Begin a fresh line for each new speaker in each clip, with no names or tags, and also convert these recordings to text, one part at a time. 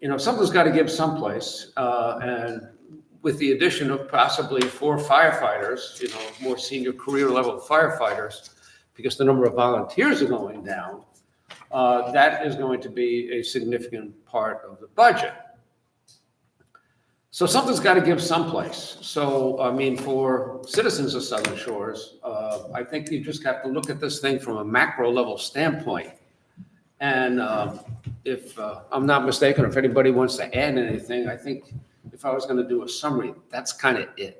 you know, something's got to give someplace, uh, and with the addition of possibly four firefighters, you know, more senior career level firefighters, because the number of volunteers are going down, uh, that is going to be a significant part of the budget. So something's got to give someplace. So, I mean, for citizens of Southern Shores, uh, I think you just have to look at this thing from a macro level standpoint. And um, if uh, I'm not mistaken, if anybody wants to add anything, I think if I was going to do a summary, that's kind of it.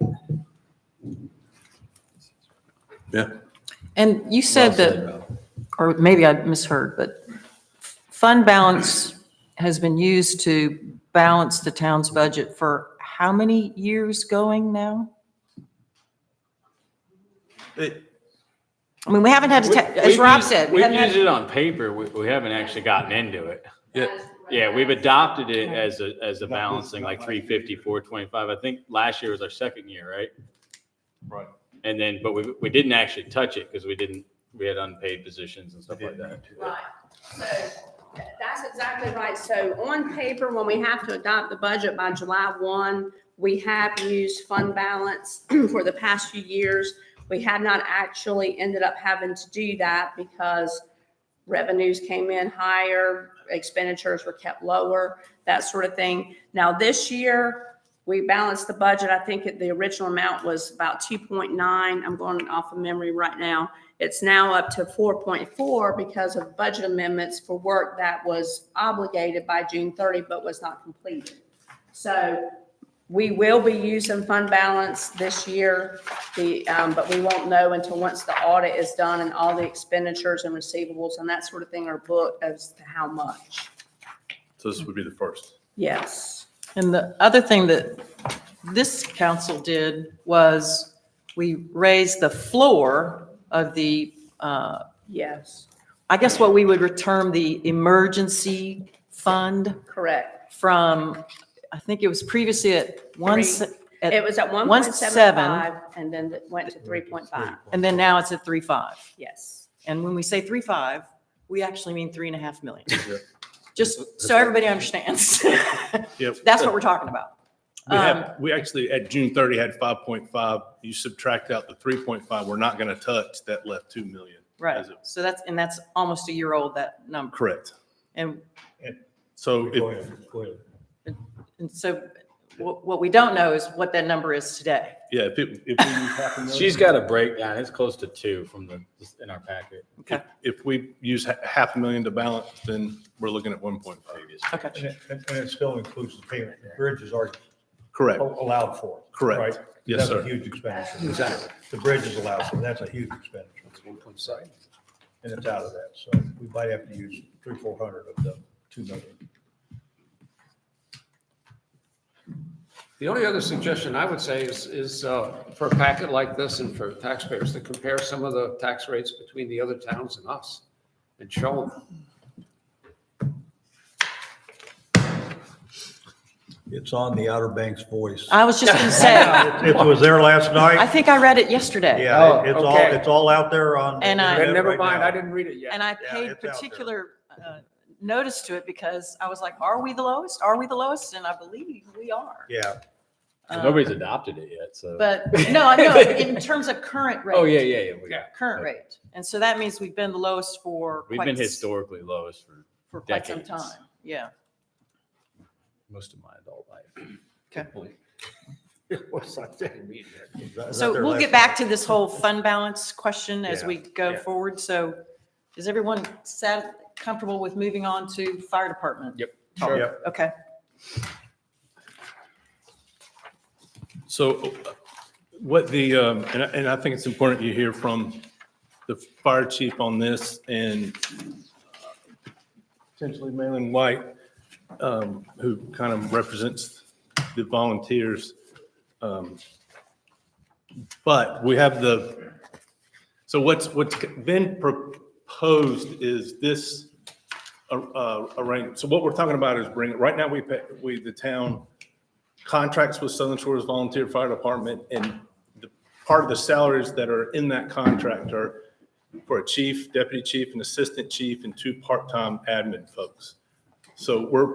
Yeah.
And you said that, or maybe I misheard, but fund balance has been used to balance the town's budget for how many years going now? I mean, we haven't had to, ta- as
We've
Rob
used-
said, we
We've
haven't
used
had,
it on paper, we, we haven't actually gotten into it.
Yeah.
Yeah, we've adopted it as a, as a balancing, like 350, 425. I think last year was our second year, right?
Right.
And then, but we, we didn't actually touch it because we didn't, we had unpaid positions and stuff like that.
Right, so that's exactly right. So on paper, when we have to adopt the budget by July one, we have used fund balance for the past few years. We have not actually ended up having to do that because revenues came in higher, expenditures were kept lower, that sort of thing. Now, this year, we balanced the budget. I think the original amount was about two point nine. I'm going off of memory right now. It's now up to four point four because of budget amendments for work that was obligated by June thirty but was not completed. So we will be using fund balance this year, the, um, but we won't know until once the audit is done and all the expenditures and receivables and that sort of thing are booked as to how much.
So this would be the first.
Yes.
and the other thing that this council did was we raised the floor of the, uh,
Yes,
I guess what we would term the emergency fund
correct.
from, I think it was previously at one, se- at-
It was at one point seven
1.75,
five and then it went to three point five.
and then now it's at three five.
Yes.
And when we say three five, we actually mean three and a half million.
Yeah.
Just so everybody understands.
Yep.
That's what we're talking about.
We
Um,
have, we actually, at June thirty, had five point five. You subtract out the three point five, we're not gonna touch, that left two million.
Right.
As of-
So that's, and that's almost a year old, that number.
Correct.
And,
So
Go
if,
ahead, go ahead.
and so what, what we don't know is what that number is today.
yeah, if it, if we use half a million.
She's got a breakdown, it's close to two from the, in our packet.
Okay,
If we use ha- half a million to balance, then we're looking at one point five.
okay.
And it, and it still includes the payment, the bridges are
Correct,
allowed for.
Correct.
right?
Yes,
That's
sir.
a huge expenditure.
Exactly.
The bridge is allowed for, that's a huge expenditure, and it's out of that, so we might have to use three, four hundred of the two million.
The only other suggestion I would say is, is uh, for a packet like this and for taxpayers to compare some of the tax rates between the other towns and us and show them.
It's on the Outer Banks Voice.
I was just going to say,
It was there last
I
night,
think I read it yesterday.
Oh,
yeah, it- it's all,
okay.
it's all out there on. the
And
Then
I-
internet
never
right
mind,
now.
I didn't read it yet.
And I
Yeah,
paid
it's out there.
particular uh, notice to it because I was like, are we the lowest? Are we the lowest? And I believe we are.
Yeah,
Uh,
Nobody's adopted it yet, so.
But, no, I know, in terms of current rate.
Oh, yeah, yeah, yeah. we got it.
Current rate. And so that means we've been the lowest for.
We've
quite
been
s-
historically lowest for
For quite some
decades.
time, yeah.
most of my adult life.
What's that thing? Read it.
it was out- it was out
So
there
we'll
last
get
night.
back to this whole fund balance question as
Yeah,
we go
yeah.
forward. So is everyone sat, comfortable with moving on to fire department?
Yep.
talk?
Sure. Yep.
Okay.
So uh, what the, um, and I, and I think it's important you hear from the fire chief on this and uh, potentially Malin White, um, who kind of represents the volunteers. Um, But we have the, so what's, what's been proposed is this uh, uh, arrangement. So what we're talking about is bring, right now we pay, we, the town contracts with Southern Shores Volunteer Fire Department, and the, part of the salaries that are in that contract are for a chief, deputy chief, and assistant chief, and two part-time admin folks. So we're